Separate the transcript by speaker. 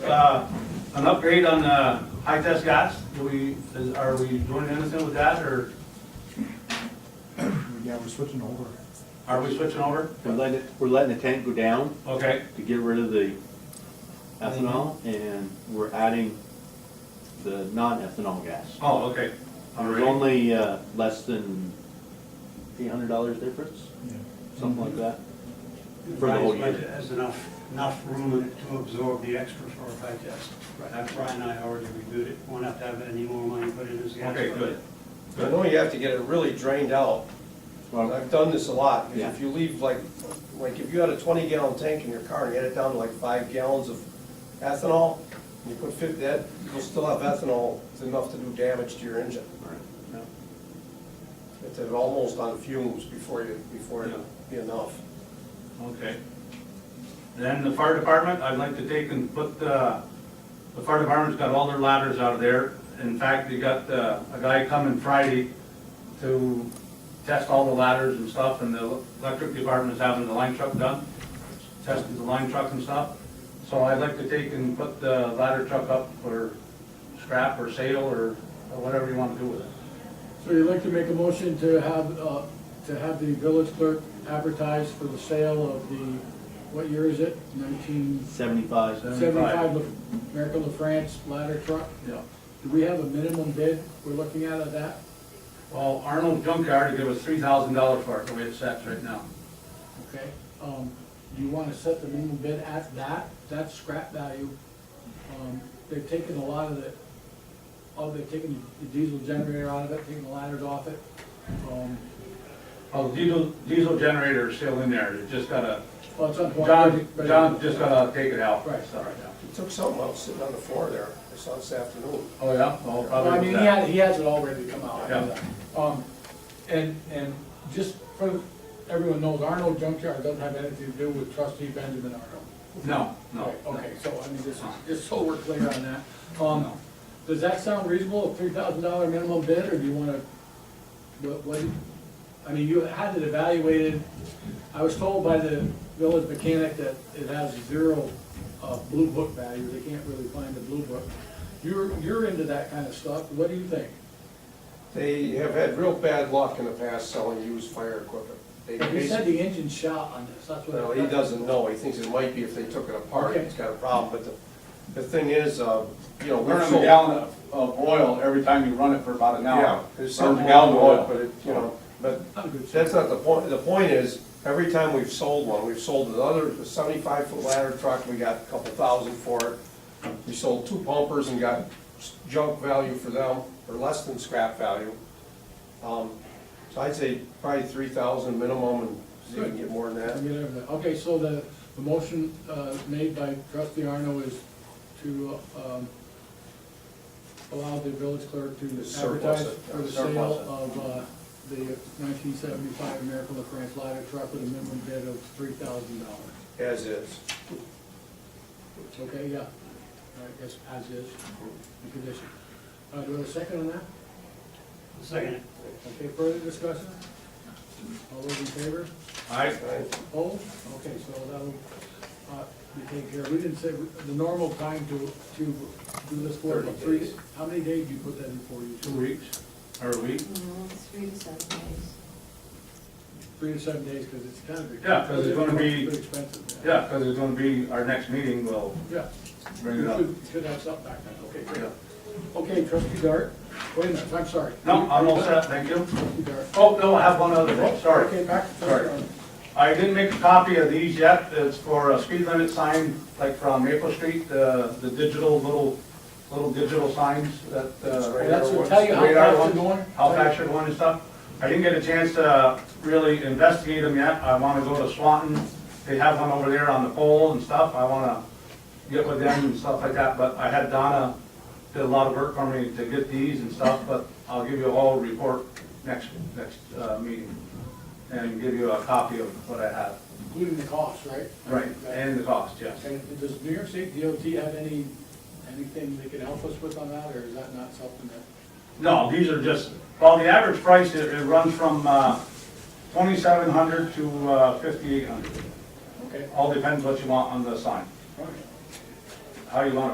Speaker 1: uh, an upgrade on the
Speaker 2: uh,
Speaker 1: high test gas? Do we, is- are we doing anything with that, or
Speaker 3: Yeah, we're switching over.
Speaker 1: are we switching over?
Speaker 4: We're letting, it- we're letting the tank go down
Speaker 1: Okay,
Speaker 4: to get rid of the ethanol, and we're adding the non-ethanol gas.
Speaker 1: oh, okay. All
Speaker 4: There's
Speaker 1: right.
Speaker 4: only uh, less than eight hundred dollars difference, something like that. For the whole
Speaker 2: Revised
Speaker 4: year.
Speaker 2: budget has enough, enough room in it to absorb the extra for a high test. That's Brian and I already reviewed it, won't have to have any more money put in as gas.
Speaker 1: Okay, good.
Speaker 5: I know you have to get it really drained out.
Speaker 4: Well,
Speaker 5: I've done this a lot, because
Speaker 4: Yeah.
Speaker 5: if you leave like, like if you had a twenty gallon tank in your car and you had it down to like five gallons of ethanol, and you put fifty, that, you'll still have ethanol, it's enough to do damage to your engine.
Speaker 4: all right.
Speaker 5: It's at almost on fumes before you, before it'd be enough.
Speaker 1: Okay. Then the fire department, I'd like to take and put, uh, the fire department's got all their ladders out of there. In fact, they got, uh, a guy coming Friday to test all the ladders and stuff, and the electric department is having the line truck done, testing the line truck and stuff. So I'd like to take and put the ladder truck up for scrap or sale or or whatever you want to do with it.
Speaker 6: So you'd like to make a motion to have, uh, to have the village clerk advertise for the sale of the, what year is it? Nineteen
Speaker 4: Seventyfive,
Speaker 6: seventy-five Miracle of France ladder truck?
Speaker 1: Yeah.
Speaker 6: Do we have a minimum bid we're looking at of that?
Speaker 1: Well, Arnold Junkyard gave us three thousand dollars for it, the way it sets right now.
Speaker 6: Okay, um, you wanna set the minimum bid at that, that's scrap value. Um, they've taken a lot of the, oh, they've taken the diesel generator out of it, taken the ladders off it. Um,
Speaker 1: Oh, diesel, diesel generator is still in there, it just gotta,
Speaker 6: well, it's on.
Speaker 1: John,
Speaker 6: but it-
Speaker 1: John just gotta take it out.
Speaker 6: Right.
Speaker 1: So, yeah.
Speaker 5: He took something out sitting on the floor there, I saw this afternoon.
Speaker 1: Oh, yeah, well,
Speaker 6: Well, I
Speaker 1: probably
Speaker 6: mean,
Speaker 1: with
Speaker 6: he
Speaker 1: that.
Speaker 6: has, he has it all ready to come out. I know
Speaker 1: Yeah.
Speaker 6: that. Um, and, and just for, everyone knows, Arnold Junkyard doesn't have anything to do with trustee Benjamin Arnold.
Speaker 1: No, no.
Speaker 6: Right, Okay, so, I mean, just, just so we're clear on that. Um, does that sound reasonable, a three thousand dollar minimum bid, or do you wanna, what, what, I mean, you had it evaluated. I was told by the village mechanic that it has zero, uh, blue book value, they can't really find the blue book. You're, you're into that kind of stuff, what do you think?
Speaker 5: They have had real bad luck in the past selling used fire equipment. They
Speaker 6: You said the engine shot on this, that's what.
Speaker 5: Well, he doesn't know, he thinks it might be if they took it apart,
Speaker 6: Okay.
Speaker 5: it's got a problem, but the, the thing is, uh, you know, we're
Speaker 7: Burn a
Speaker 5: so.
Speaker 7: gallon of, of oil every time you run it for about an
Speaker 5: Yeah,
Speaker 7: hour.
Speaker 5: there's
Speaker 7: Burn
Speaker 5: something
Speaker 7: a
Speaker 5: wrong
Speaker 7: gallon of
Speaker 5: with it,
Speaker 7: oil.
Speaker 5: but it, you know, but
Speaker 6: I'm good. sir.
Speaker 5: that's not the point, the point is, every time we've sold one, we've sold another seventy-five foot ladder truck, we got a couple thousand for it. We sold two pumpers and got s- junk value for them, or less than scrap value. Um, so I'd say probably three thousand minimum, and see if we can get more than that.
Speaker 6: I'll get everybody. Okay, so the, the motion uh, made by trustee Arno is to um, allow the village clerk to
Speaker 5: Surplus
Speaker 6: advertise
Speaker 5: it,
Speaker 6: for the
Speaker 5: surplus
Speaker 6: sale
Speaker 5: it.
Speaker 6: of uh, the nineteen seventy-five Miracle of France ladder truck with a minimum bid of three thousand dollars.
Speaker 5: As is.
Speaker 6: Okay, yeah. I guess as is, the condition. Uh, Do we have a second on that?
Speaker 2: Second, it.
Speaker 6: Okay, further discussion? All those in favor?
Speaker 1: I,
Speaker 5: Right?
Speaker 6: Oh, okay, so that'll, uh, be taken care of. We didn't say, the normal time to, to do this for
Speaker 5: Thirty
Speaker 6: three,
Speaker 5: days.
Speaker 6: how many days do you put that in for you?
Speaker 1: two weeks, or a week.
Speaker 8: No, it's three to seven days.
Speaker 6: Three to seven days, because it's kind of.
Speaker 1: Yeah, 'cause it's gonna be-
Speaker 6: Pretty expensive.
Speaker 1: Yeah, because it's gonna be, our next meeting, we'll
Speaker 6: Yeah.
Speaker 1: bring it up.
Speaker 6: You could- could have something back then, okay, great. Okay, trustee Dart, wait a minute, I'm sorry.
Speaker 1: No, I'm all set, thank you.
Speaker 6: Trustee Dart.
Speaker 1: Oh, no, I have one other thing, sorry.
Speaker 6: Okay, back to
Speaker 1: Sorry.
Speaker 6: trustee Arnold.
Speaker 1: I didn't make a copy of these yet, it's for a speed limit sign, like from Maple Street, the, the digital little, little digital signs that, uh.
Speaker 5: Right.
Speaker 6: That's to tell you how
Speaker 1: Radar
Speaker 6: fast
Speaker 1: one.
Speaker 6: you're going.
Speaker 1: how fast you're going and stuff. I didn't get a chance to really investigate them yet. I wanna go to Swanton. They have one over there on the pole and stuff. I wanna get with them and stuff like that, but I had Donna did a lot of work for me to get these and stuff, but I'll give you a whole report next, next, uh, meeting. And give you a copy of what I have.
Speaker 6: Including the cost, right?
Speaker 1: Right, and the cost, yes.
Speaker 6: And does New York State DOT have any, anything they can help us with on that, or is that not something that?
Speaker 1: No, these are just, well, the average price, it, it runs from, uh, twenty-seven hundred to, uh, fifty-eight hundred.
Speaker 6: Okay.
Speaker 1: All depends what you want on the sign,
Speaker 6: all right.
Speaker 1: how you want it